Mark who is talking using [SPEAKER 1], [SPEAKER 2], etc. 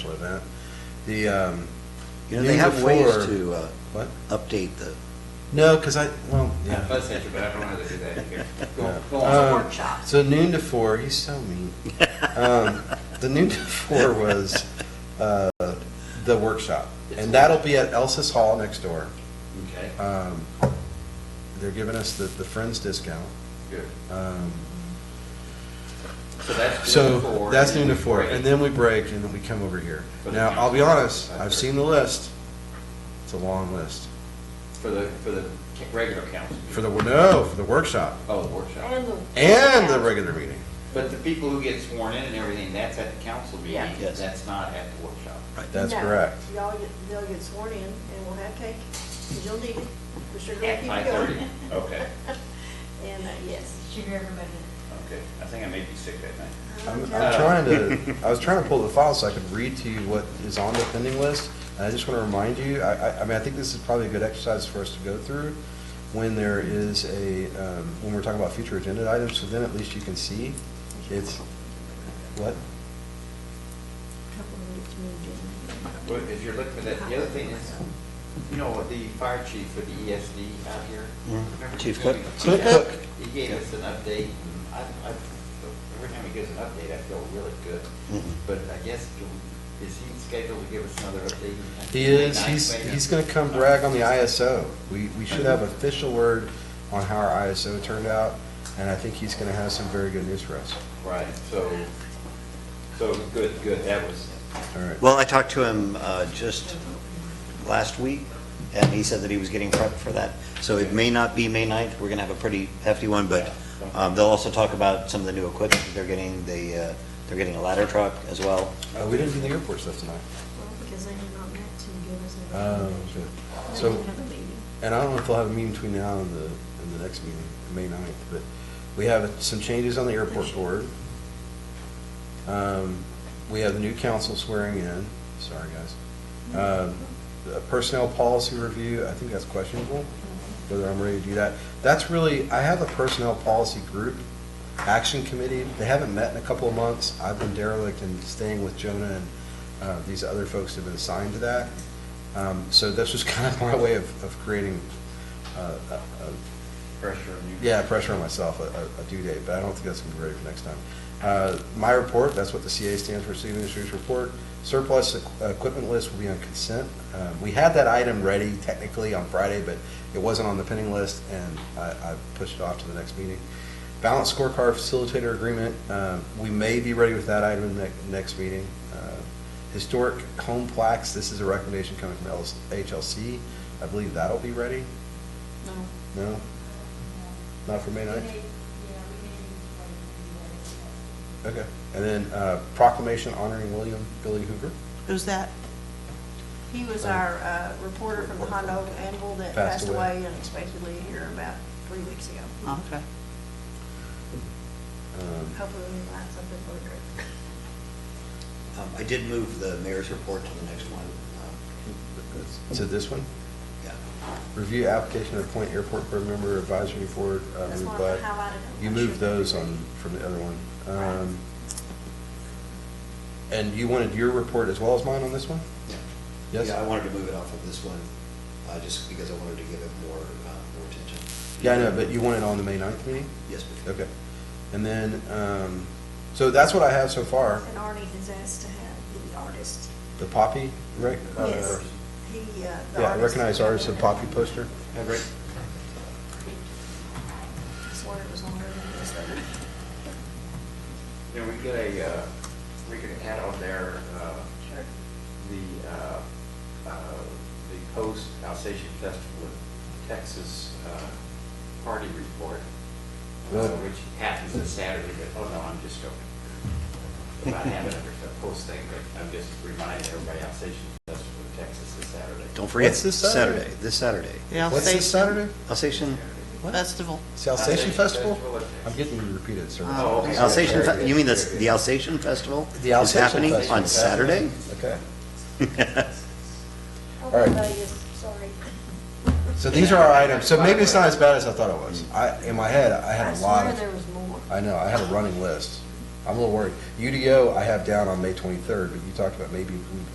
[SPEAKER 1] event. The, um, you know,
[SPEAKER 2] You
[SPEAKER 1] they have ways to,
[SPEAKER 2] to uh,
[SPEAKER 1] what?
[SPEAKER 2] update the,
[SPEAKER 1] No, because I, well, yeah.
[SPEAKER 3] That's interesting, but I don't know how to do that here. Go,
[SPEAKER 1] No.
[SPEAKER 3] go
[SPEAKER 1] Uh,
[SPEAKER 3] on.
[SPEAKER 1] Um,
[SPEAKER 4] workshops.
[SPEAKER 1] So noon to four, he's so mean. Um, The noon to four was uh, the workshop, and that'll be at Elsis Hall next door.
[SPEAKER 3] Okay,
[SPEAKER 1] Um, They're giving us the, the Friends discount.
[SPEAKER 3] good.
[SPEAKER 1] Um,
[SPEAKER 3] So that's noon to
[SPEAKER 1] So
[SPEAKER 3] four.
[SPEAKER 1] that's noon to four,
[SPEAKER 3] Great.
[SPEAKER 1] and then we break, and then we come over here.
[SPEAKER 3] For the
[SPEAKER 1] Now, I'll be
[SPEAKER 3] council.
[SPEAKER 1] honest, I've seen the list. It's a long list.
[SPEAKER 3] For the, for the ca- regular council.
[SPEAKER 1] For the, no, for the workshop
[SPEAKER 3] Oh, the workshop.
[SPEAKER 4] And the.
[SPEAKER 1] and the regular meeting.
[SPEAKER 3] But the people who get sworn in and everything, that's at the council meeting.
[SPEAKER 4] Yeah.
[SPEAKER 2] Yes.
[SPEAKER 3] That's not at the workshop.
[SPEAKER 1] That's
[SPEAKER 4] No.
[SPEAKER 1] correct.
[SPEAKER 4] Y'all get, they'll get sworn in and we'll have cake, 'cause you'll need it, because you're gonna
[SPEAKER 3] At
[SPEAKER 4] keep
[SPEAKER 3] five
[SPEAKER 4] it
[SPEAKER 3] thirty?
[SPEAKER 4] going.
[SPEAKER 3] Okay,
[SPEAKER 4] And, uh, yes.
[SPEAKER 5] Sugar everybody.
[SPEAKER 3] okay. I think I may be sick that night.
[SPEAKER 1] I'm, I'm
[SPEAKER 3] Uh,
[SPEAKER 1] trying to, I was trying to pull the file so I could read to you what is on the pending list. And I just want to remind you, I, I, I mean, I think this is probably a good exercise for us to go through when there is a, um, when we're talking about future agenda items, so then at least you can see it's, what?
[SPEAKER 4] Couple minutes, maybe.
[SPEAKER 3] Well, if you're looking for that, the other thing is, you know, the fire chief for the ESD out here.
[SPEAKER 2] Mhm.
[SPEAKER 3] remember
[SPEAKER 2] Chief
[SPEAKER 3] he
[SPEAKER 2] Cook.
[SPEAKER 3] gave us-
[SPEAKER 2] Chief Cook.
[SPEAKER 3] He gave us an update. and I, I, every time he gives an update, I feel really good.
[SPEAKER 2] Mhm.
[SPEAKER 3] But I guess, do- is he scheduled to give us another update?
[SPEAKER 1] He is,
[SPEAKER 3] Nice,
[SPEAKER 1] he's,
[SPEAKER 3] maybe?
[SPEAKER 1] he's gonna come brag on the ISO. We, we should have official word on how our ISO turned out, and I think he's gonna have some very good news for us.
[SPEAKER 3] Right, so, so, good, good, that was,
[SPEAKER 1] All right.
[SPEAKER 2] well, I talked to him uh, just last week, and he said that he was getting prepped for that. So it may not be May 9th, we're going to have a pretty hefty one, but um, they'll also talk about some of the new equipment that they're getting, they, uh, they're getting a ladder truck as well.
[SPEAKER 1] Uh, we didn't do the airport stuff tonight.
[SPEAKER 4] Well, because they did not meant to give us a.
[SPEAKER 1] Oh, good.
[SPEAKER 4] They
[SPEAKER 1] So-
[SPEAKER 4] didn't have a meeting.
[SPEAKER 1] And I don't know if they'll have a meeting between now and the, and the next meeting, May 9th, but we have some changes on the airport board. Um, We have the new council swearing in, sorry, guys. Um, the Personnel policy review, I think that's questionable, whether I'm ready to do that. That's really, I have a personnel policy group, action committee, they haven't met in a couple of months. I've been derelict in staying with Jonah and uh, these other folks have been assigned to that. Um, So this was kind of my way of, of creating, uh, a- a-
[SPEAKER 3] pressure on you.
[SPEAKER 1] yeah, pressure on myself, a, a- a due date, but I don't think that's gonna be ready for next time. Uh, My report, that's what the CA stands for, City Administrators Report. Surplus equ- equipment list will be on consent. Um, We had that item ready technically on Friday, but it wasn't on the pending list, and I, I pushed it off to the next meeting. Balance scorecard facilitator agreement, um, we may be ready with that item in the next meeting. Uh, Historic home plaques, this is a recommendation coming from LS HLC. I believe that'll be ready? No. No? Not for May 9th? Okay. And then uh, proclamation honoring William Billy Hoover.
[SPEAKER 6] Who's that?
[SPEAKER 4] He was our uh, reporter from the Hondo Anvil that
[SPEAKER 1] Passed
[SPEAKER 4] passed
[SPEAKER 1] away.
[SPEAKER 4] away unexpectedly here about three weeks ago.
[SPEAKER 6] Oh, Okay.
[SPEAKER 1] Um,
[SPEAKER 4] Hopefully we find something for the group.
[SPEAKER 2] Um, I did move the mayor's report to the next one. Um,
[SPEAKER 1] So this one,
[SPEAKER 2] Yeah.
[SPEAKER 1] review application to appoint airport board member advisory board. uh,
[SPEAKER 4] That's
[SPEAKER 1] moved
[SPEAKER 4] why I
[SPEAKER 1] by-
[SPEAKER 4] highlighted them.
[SPEAKER 1] You
[SPEAKER 4] I'm
[SPEAKER 1] moved
[SPEAKER 4] sure.
[SPEAKER 1] those on, from the other one.
[SPEAKER 4] Right.
[SPEAKER 1] Um, And you wanted your report as well as mine on this one?
[SPEAKER 2] Yeah.
[SPEAKER 1] Yes?
[SPEAKER 2] Yeah, I wanted to move it off of this one, uh, just because I wanted to give it more, uh, more attention.
[SPEAKER 1] Yeah, I know, but you want it on the May 9th meeting?
[SPEAKER 2] Yes, please.
[SPEAKER 1] Okay. And then, um, so that's what I have so far.
[SPEAKER 4] And Arnie has asked to have the artist.
[SPEAKER 1] The Poppy, right? Uh,
[SPEAKER 4] Yes, he, uh, the
[SPEAKER 1] Yeah,
[SPEAKER 4] artist-
[SPEAKER 1] recognized artist of Poppy poster.
[SPEAKER 3] Yeah, great.
[SPEAKER 4] I swear it was on her list.
[SPEAKER 3] Then we get a, uh, we could add on there, uh,
[SPEAKER 4] Sure.
[SPEAKER 3] the, uh, uh, the post-Alsatian Festival in Texas uh, party report, uh,
[SPEAKER 1] Really?
[SPEAKER 3] which happens this Saturday, but, oh no, I'm just joking. If I haven't, a post thing, but I'm just reminding everybody, Alsatian Festival in Texas this Saturday.
[SPEAKER 2] Don't forget,
[SPEAKER 1] What's this Saturday?
[SPEAKER 2] Saturday, this Saturday.
[SPEAKER 6] The
[SPEAKER 1] What's this
[SPEAKER 6] Alsatian
[SPEAKER 1] Saturday?
[SPEAKER 2] Alsatian,
[SPEAKER 1] What?
[SPEAKER 6] Festival.
[SPEAKER 1] It's the Alsatian
[SPEAKER 3] Alsatian
[SPEAKER 1] Festival?
[SPEAKER 3] Festival at-
[SPEAKER 1] I'm getting you repeated, sir.
[SPEAKER 6] Oh, okay.
[SPEAKER 2] Alsatian, Fe- you mean the, the Alsatian Festival?
[SPEAKER 1] The Alsatian
[SPEAKER 2] Is happening
[SPEAKER 1] Festival.
[SPEAKER 2] on Saturday?
[SPEAKER 1] Okay.
[SPEAKER 4] Oh,
[SPEAKER 1] right.
[SPEAKER 4] my goodness, sorry.
[SPEAKER 1] So these are our items. So maybe it's not as bad as I thought it was. I, in my head, I had a lot
[SPEAKER 4] I swear there
[SPEAKER 1] of,
[SPEAKER 4] was more.
[SPEAKER 1] I know, I had a running list. I'm a little worried. UDO, I have down on May 23rd, but you talked about maybe we